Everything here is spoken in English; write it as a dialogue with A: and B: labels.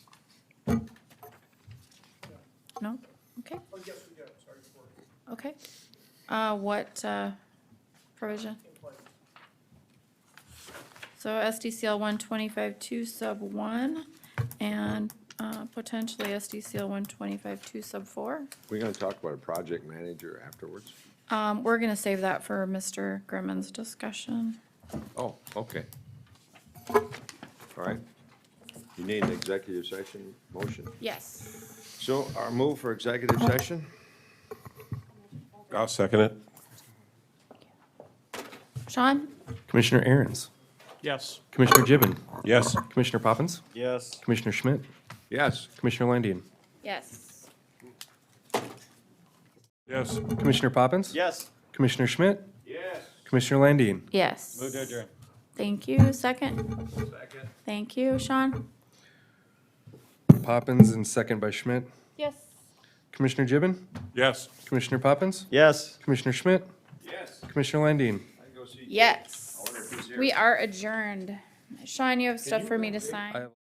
A: No? Okay. Okay. Uh, what, uh, provision? So SDCL one twenty-five two sub one and, uh, potentially SDCL one twenty-five two sub four.
B: We're gonna talk about a project manager afterwards?
A: Um, we're gonna save that for Mr. Grimmon's discussion.
B: Oh, okay. All right. You need an executive session motion.
A: Yes.
B: So our move for executive session?
C: I'll second it.
A: Sean?
D: Commissioner Aaron's,
E: Yes.
D: Commissioner Gibbon,
C: Yes.
D: Commissioner Poppins,
E: Yes.
D: Commissioner Schmidt,
B: Yes.
D: Commissioner Landian,
A: Yes.
C: Yes.
D: Commissioner Poppins,
E: Yes.
D: Commissioner Schmidt,
B: Yes.
D: Commissioner Landian.
A: Yes.
E: Move to adjourn.
A: Thank you. Second?
B: Second.
A: Thank you, Sean?
D: Poppins and second by Schmidt.
A: Yes.
D: Commissioner Gibbon,
C: Yes.
D: Commissioner Poppins,
E: Yes.
D: Commissioner Schmidt,
B: Yes.
D: Commissioner Landine.
B: I can go see.
A: Yes.
B: I wonder if he's here.
A: We are adjourned. Sean, you have stuff for me to sign?
D: I-